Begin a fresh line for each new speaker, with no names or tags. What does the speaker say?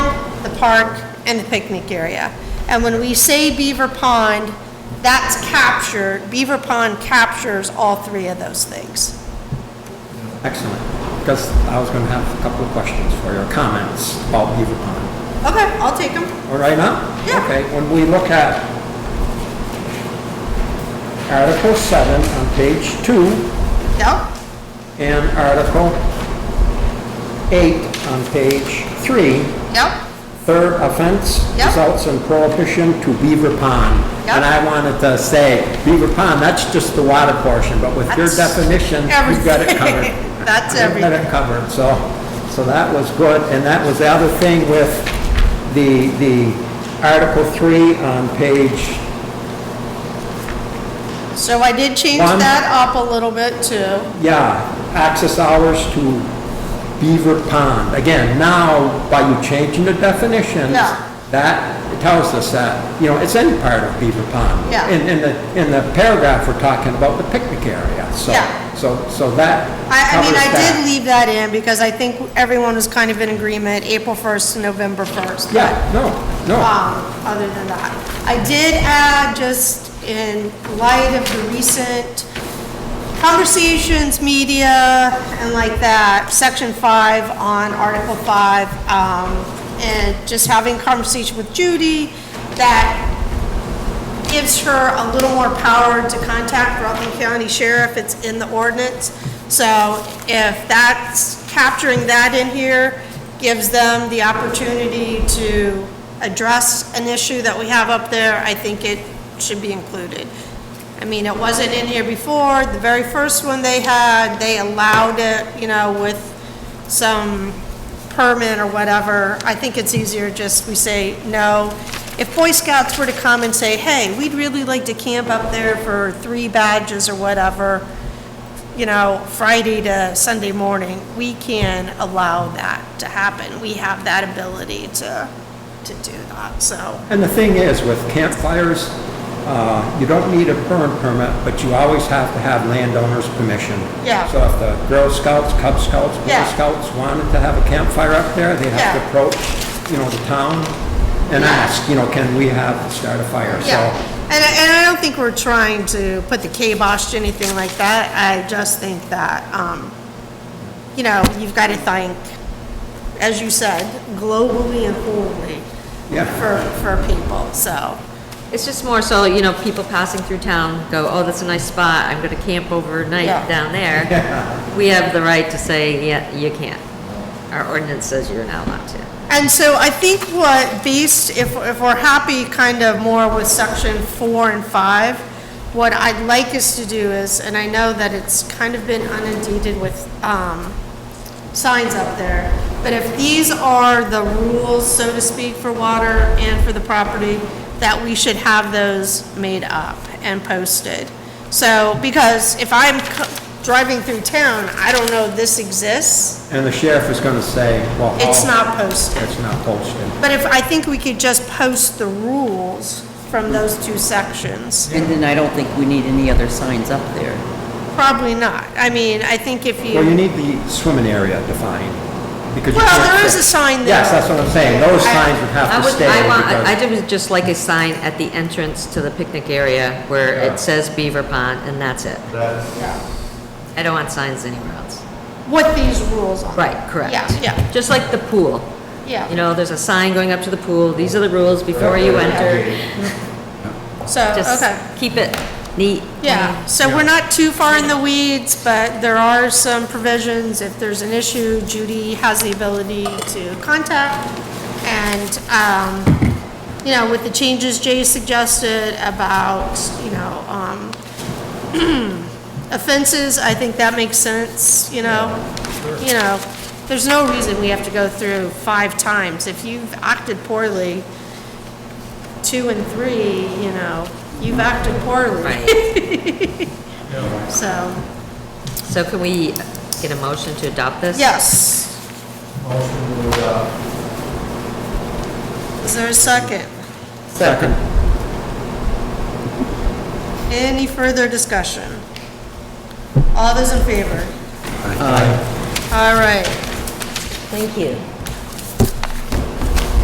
park and the picnic area. And when we say Beaver Pond, that's captured, Beaver Pond captures all three of those things.
Excellent, because I was going to have a couple of questions for your comments about Beaver Pond.
Okay, I'll take them.
All right, now?
Yeah.
Okay, when we look at Article 7 on page 2
Yep,
and Article 8 on page 3,
yep,
third offense
Yep.
results in prohibition to Beaver Pond.
Yep.
And I wanted to say, Beaver Pond, that's just the water portion, but with your
That's
definition, you've got it covered.
everything. That's
You've got
everything.
it covered, so, so that was good. And that was the other thing with the, the Article 3 on page
So I did change
One.
that up a little bit too.
Yeah, access hours to Beaver Pond. Again, now, by you changing the definitions,
Yeah.
that tells us that, you know, it's any part of Beaver Pond.
Yeah.
In, in the, in the paragraph, we're talking about the picnic area, so,
Yeah.
so, so that
I, I mean, I
covers
did
that.
leave that in because I think everyone was kind of in agreement, April 1st to November 1st.
Yeah, no, no,
um, other than that. I did add, just in light of the recent conversations, media, and like that, section five on Article five, um, and just having conversation with Judy, that gives her a little more power to contact Rutland County Sheriff, it's in the ordinance. So if that's, capturing that in here gives them the opportunity to address an issue that we have up there, I think it should be included. I mean, it wasn't in here before, the very first one they had, they allowed it, you know, with some permit or whatever, I think it's easier just we say no. If Boy Scouts were to come and say, hey, we'd really like to camp up there for three badges or whatever, you know, Friday to Sunday morning, we can allow that to happen. We have that ability to, to do that, so,
and the thing is, with campfires, uh, you don't need a burn permit, but you always have to have landowner's permission.
Yeah.
So if the Girl Scouts, Cub Scouts, Boy
Yeah.
Scouts wanted to have a campfire up there, they have
Yeah.
to approach, you know, the town and ask, you know, can we have, start a fire? So
yeah. And, I- and I don't think we're trying to put the kibosh to anything like that. I just think that, um, you know, you've got to thank, as you said, globally and globally
Yeah.
for, for people, so,
It's just more so, you know, people passing through town go, oh, that's a nice spot, I'm gonna camp overnight
Yeah.
down there. We have the right to say, yeah, you can't. Our ordinance says you're not allowed to.
And so I think what, based, if, if we're happy kind of more with section four and five, what I'd like us to do is, and I know that it's kind of been inundated with, um, signs up there, but if these are the rules, so to speak, for water and for the property, that we should have those made up and posted. So, because if I'm co- driving through town, I don't know this exists,
And the sheriff is going to say, well...
it's
how-
not posted.
It's not posted.
But if, I think we could just post the rules from those two sections.
And then I don't think we need any other signs up there.
Probably not. I mean, I think if
Well, you
you,
need the swimming area defined, because you
Well,
can't
there is
fit-
a sign there.
Yes, that's what I'm saying, those
I-
signs would
I
have to
would,
stay,
I want, I- I
because...
did was just like a sign at the entrance to the picnic area where
Yeah.
it says Beaver Pond, and that's it. I don't want signs anywhere else.
what these rules are.
Right, correct.
Yeah, yeah,
Just like the pool. You
yeah.
know, there's a sign going up to the pool, these are the rules before you enter.
So,
Just
okay.
keep it neat.
Yeah, so we're not too far in the weeds, but there are some provisions. If there's an issue, Judy has the ability to contact. And, um, you know, with the changes Jay suggested about, you know, um, offenses, I think that makes sense, you know? You know, there's no reason we have to go through five times. If you've acted poorly, two and three, you know, you've acted poorly.
Right.
So,
So can we get a motion to adopt this?
yes.
Motion to adopt.
Is there a second?
Second.
Any further discussion? All those in favor? All right.
Thank you.